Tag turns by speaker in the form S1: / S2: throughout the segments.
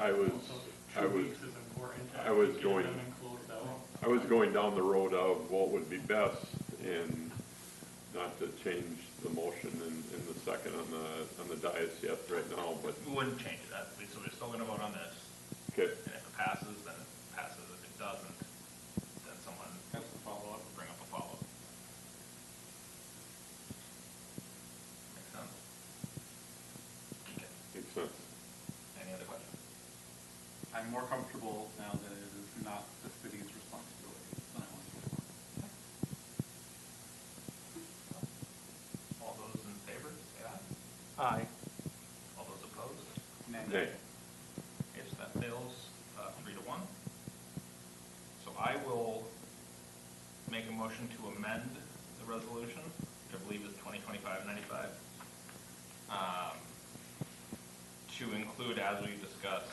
S1: I was, I was, I was going- I was going down the road of what would be best and not to change the motion in, in the second on the, on the dais yet right now, but,
S2: We wouldn't change it, that, so we're still gonna vote on this,
S1: okay,
S2: and if it passes, then it passes, if it doesn't, then someone. Has a follow-up. Bring up a follow-up. Makes sense? Okay,
S1: makes sense.
S2: any other questions?
S3: I'm more comfortable now that it is not the city's responsibility than I was before.
S2: All those in favor, say aye.
S4: Aye.
S2: All those opposed?
S1: Nay.
S2: Okay, so that fails, uh, three to one. So I will make a motion to amend the resolution, which I believe is twenty twenty-five ninety-five, um, to include, as we discussed,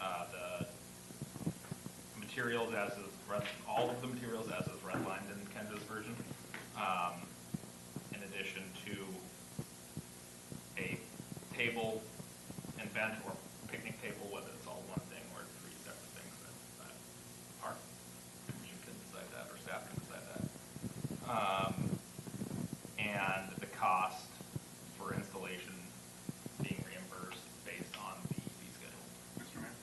S2: uh, the materials as is, red- all of the materials as is redlined in Kendra's version, um, in addition to a table and bench or picnic table, whether it's all one thing or three separate things, that, that our commission can decide that, or staff can decide that. Um, and the cost for installation being reimbursed based on the fee schedule.
S3: Mr. Mayor,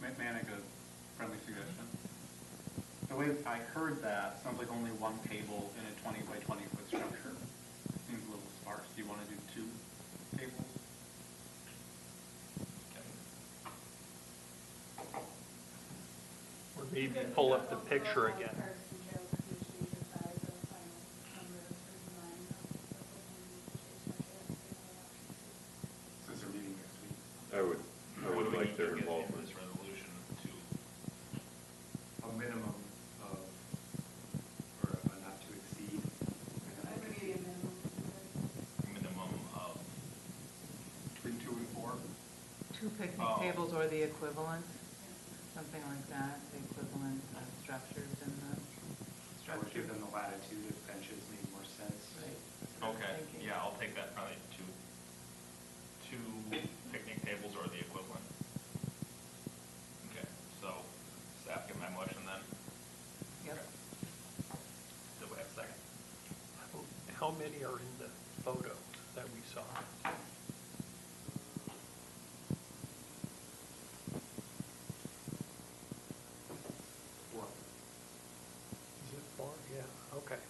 S3: may- may I make a friendly suggestion? The way I heard that, sounds like only one table in a twenty by twenty foot structure. Seems a little sparse. Do you want to do two tables?
S2: Okay.
S4: Or maybe pull up the picture again.
S3: Since they're meeting next week.
S1: I would, I
S2: What do
S1: would
S2: we
S1: like
S2: need
S1: their
S2: to get in
S1: involvement.
S2: This resolution to,
S5: a minimum of, or a not to exceed. and I think
S2: minimum of,
S5: Between two and four,
S6: Two picnic
S2: Oh.
S6: tables or the equivalent, something like that, the equivalent of structures in the
S5: I would give
S6: structure.
S5: them the latitude if benches made more sense.
S2: okay, yeah, I'll take that probably to, two picnic tables or the equivalent. Okay, so staff get my motion then?
S6: Yep.
S2: Do we have a second?
S4: How- How many are in the photo that we saw?
S5: One.
S4: Is it four? Yeah, okay.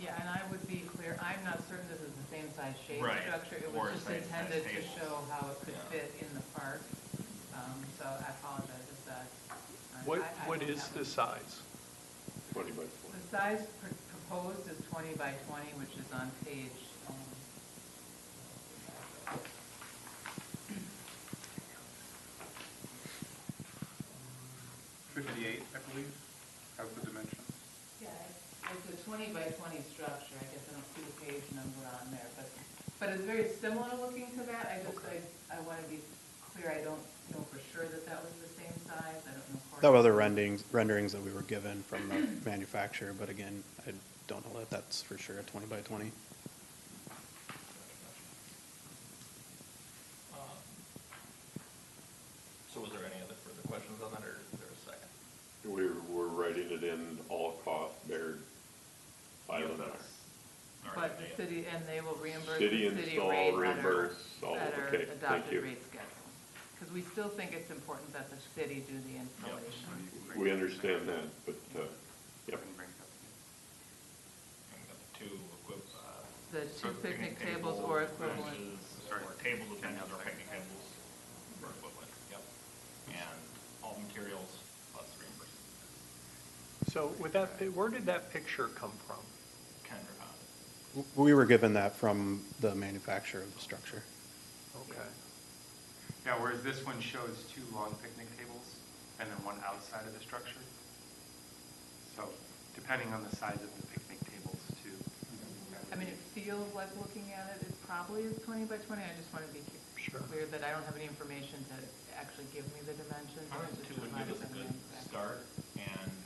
S6: Yeah, and I would be clear, I'm not certain this is the same size shape
S2: Right,
S6: structure. It
S2: or
S6: was just
S2: same size
S6: intended to
S2: tables.
S6: show how it could
S2: Yeah.
S6: fit in the park. Um, So I apologize if that. I-
S4: What,
S6: I- I
S4: what
S6: don't
S4: is
S6: have it.
S4: the size?
S1: Twenty by
S6: The
S1: twenty.
S6: size pr- proposed is 20 by 20, which is on page, um,
S3: Fifty-eight, I believe, has the dimensions.
S6: yeah, it's it's a 20 by 20 structure, I guess I don't see the page number on there, but, but it's very similar looking to that, I just, I, I want to be clear, I don't know for sure that that was the same size, I don't know. for-
S7: There were other renderings, renderings that we were given from the manufacturer, but again, I don't know that that's for sure a twenty by twenty.
S2: Um, So was there any other further questions on that, or is there a second?
S1: We were writing it in all costs bared by the
S2: All right,
S6: But the
S2: yeah.
S6: city, and they will reimburse the
S1: City
S6: city rate
S1: install,
S6: that are,
S1: reimburse, all,
S6: that are
S1: okay, thank
S6: adopted
S1: you.
S6: rate schedule. Because we still think it's important that the city do the installation.
S1: We understand that, but, uh,
S3: Yep.
S1: yep,
S3: And bring it up again.
S2: And we got the Two equip, uh,
S6: The two picnic tables or equivalent,
S2: benches, Or tables with benches or picnic tables or equivalent, yep. And all materials plus reimbursement,
S4: So with that, pi- where did that picture come from?
S2: Kendra Pond.
S7: W- We were given that from the manufacturer of the structure.
S4: Okay.
S3: Yeah, whereas this one shows two long picnic tables and then one outside of the structure. So depending on the size of the picnic tables too.
S6: I mean, it feels like looking at it, it probably is twenty by twenty, I just want to be
S4: Sure.
S6: clear that I don't have any information to actually give me the dimensions.
S2: I think
S6: just
S2: two would
S6: provided
S2: give us a
S6: by the
S2: good
S6: manufacturer.
S2: start, and